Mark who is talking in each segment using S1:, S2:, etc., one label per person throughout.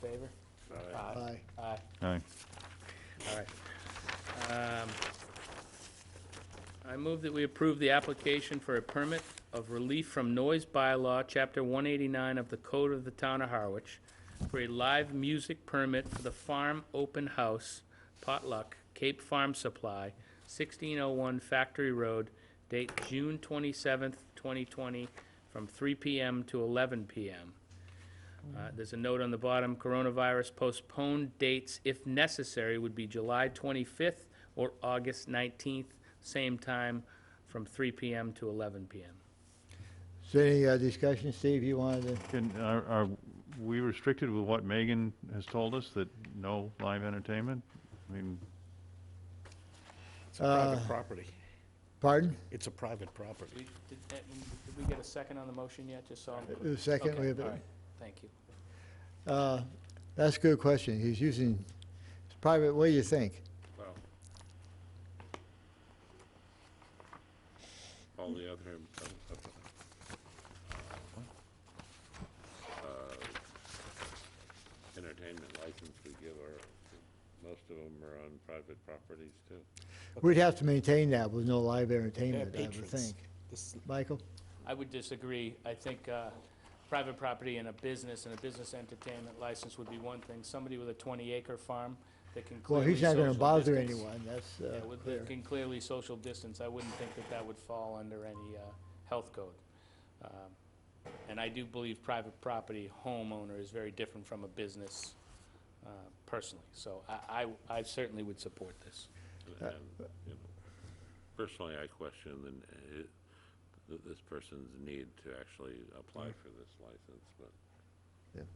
S1: favor?
S2: Aye.
S1: Aye.
S3: Aye.
S1: All right. Um, I move that we approve the application for a permit of relief from noise bylaw, Chapter 189 of the Code of the Town of Harwich, for a live music permit for the Farm Open House Potluck Cape Farm Supply, 1601 Factory Road, date June 27th, 2020, from 3 PM to 11 PM. Uh, There's a note on the bottom, coronavirus postponed dates, if necessary, would be July 25th or August 19th, same time, from 3 PM to 11 PM.
S2: Is there any uh, discussion, Steve, you wanted
S3: Can, are, are we restricted with what Megan has told us, that no live entertainment? I mean,
S4: It's a private
S2: Uh,
S4: property.
S2: to, pardon?
S4: It's a private property.
S1: Did uh, we get a second on the motion yet, just so I'm...
S2: The second, we have,
S1: All right, thank you.
S2: uh, that's a good question. He's using, it's private, what do you think?
S5: Well, all the other, um, uh, entertainment license we give are, most of them are on private properties too.
S2: We'd have to maintain that with no live entertainment, I would
S4: patrons.
S2: think.
S4: This is-
S2: Michael?
S1: I would disagree. I think uh, private property and a business and a business entertainment license would be one thing. Somebody with a 20-acre farm that can
S2: Well,
S1: clearly
S2: he's not gonna
S1: social
S2: bother
S1: distance-
S2: anyone, that's
S1: Yeah,
S2: uh,
S1: with-
S2: clear.
S1: that can clearly social distance, I wouldn't think that that would fall under any uh, health code. Um, And I do believe private property homeowner is very different from a business uh, personally, so I, I- I certainly would support this.
S5: And, and, you know, Personally, I question the, n- i- th- this person's need to actually apply for this license, but,
S2: Yeah.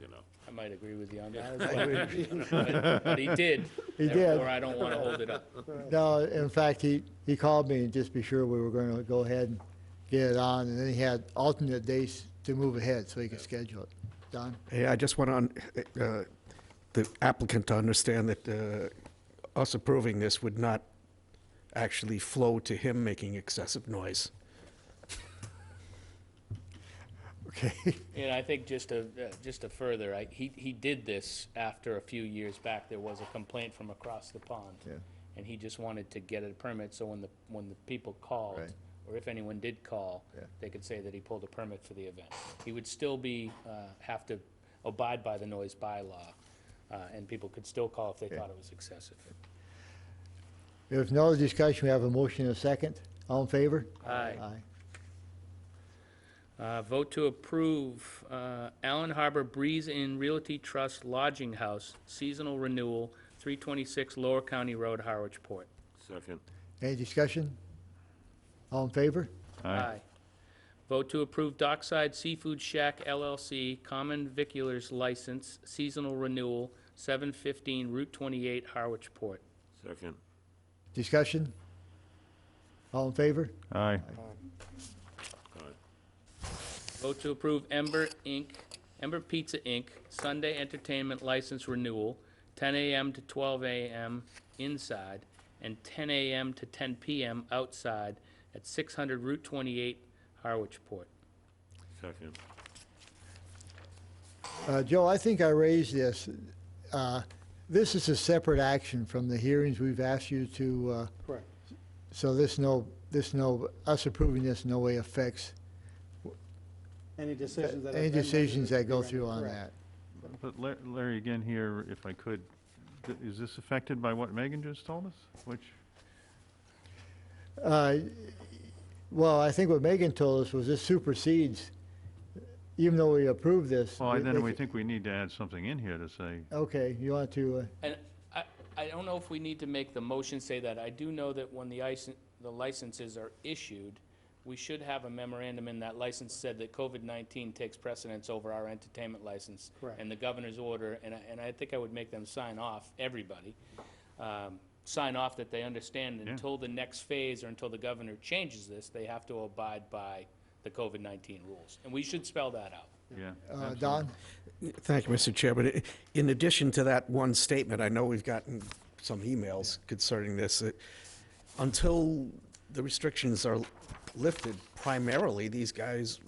S5: you know.
S1: I might agree with you on
S2: I
S1: that,
S2: would agree.
S1: but- but he did.
S2: He did.
S1: Therefore, I don't want to hold it up.
S2: No, in fact, he, he called me and just be sure we were gonna go ahead and get it on, and then he had alternate dates to move ahead, so he could schedule it. Don?
S6: Hey, I just want on, the applicant to understand that uh, us approving this would not actually flow to him making excessive noise.
S2: Okay.
S1: And I think just to, uh, just to further, I, he, he did this after a few years back, there was a complaint from across the pond.
S2: Yeah.
S1: And he just wanted to get a permit, so when the, when the people called,
S2: Right.
S1: or if anyone did call,
S2: Yeah.
S1: they could say that he pulled a permit for the event. He would still be, uh, have to abide by the noise bylaw, uh, and people could still call if they thought it was excessive.
S2: If no discussion, we have a motion and a second. All in favor?
S1: Aye.
S2: Aye.
S1: Uh, Vote to approve uh, Allen Harbor Breeze Inn Realty Trust Lodging House seasonal renewal, 326 Lower County Road, Harwich Port.
S5: Second.
S2: Any discussion? All in favor?
S3: aye.
S1: Vote to approve Dockside Seafood Shack LLC Common Viculars License seasonal renewal, 715 Route 28, Harwich Port.
S5: Second.
S2: Discussion? All in favor?
S3: Aye.
S5: All right.
S1: Vote to approve Ember Inc., Ember Pizza Inc., Sunday entertainment license renewal, 10 a.m. to 12 a.m. inside and 10 a.m. to 10 p.m. outside at 600 Route 28, Harwich Port.
S5: Second.
S2: Uh, Joe, I think I raised this. Uh, This is a separate action from the hearings we've asked you to, uh,
S4: Correct.
S2: so this no, this no, us approving this in no way affects
S7: Any decisions that have been
S2: any
S7: rendered
S2: decisions
S7: would
S2: that
S7: be
S2: go
S7: rendered,
S2: through on
S7: correct.
S2: that.
S3: But La- Larry, again here, if I could, th- is this affected by what Megan just told us? Which,
S2: Uh, Well, I think what Megan told us was this supersedes, even though we approved this.
S3: well,
S2: they- they
S3: then we
S2: ca-
S3: think we need to add something in here to say,
S2: Okay, you want to, uh,
S1: And I, I don't know if we need to make the motion say that. I do know that when the ice, the licenses are issued, we should have a memorandum in that license said that COVID-19 takes precedence over our entertainment license.
S7: Correct.
S1: And the governor's order, and I, and I think I would make them sign off, everybody, um, sign off that they understand
S3: Yeah.
S1: until the next phase or until the governor changes this, they have to abide by the COVID-19 rules. And we should spell that out.
S3: yeah.
S2: uh,
S3: absolutely.
S2: Don?
S6: Thank you, Mr. Chair, but i- in addition to that one statement, I know we've gotten some emails concerning this. uh, Until the restrictions are lifted, primarily, these guys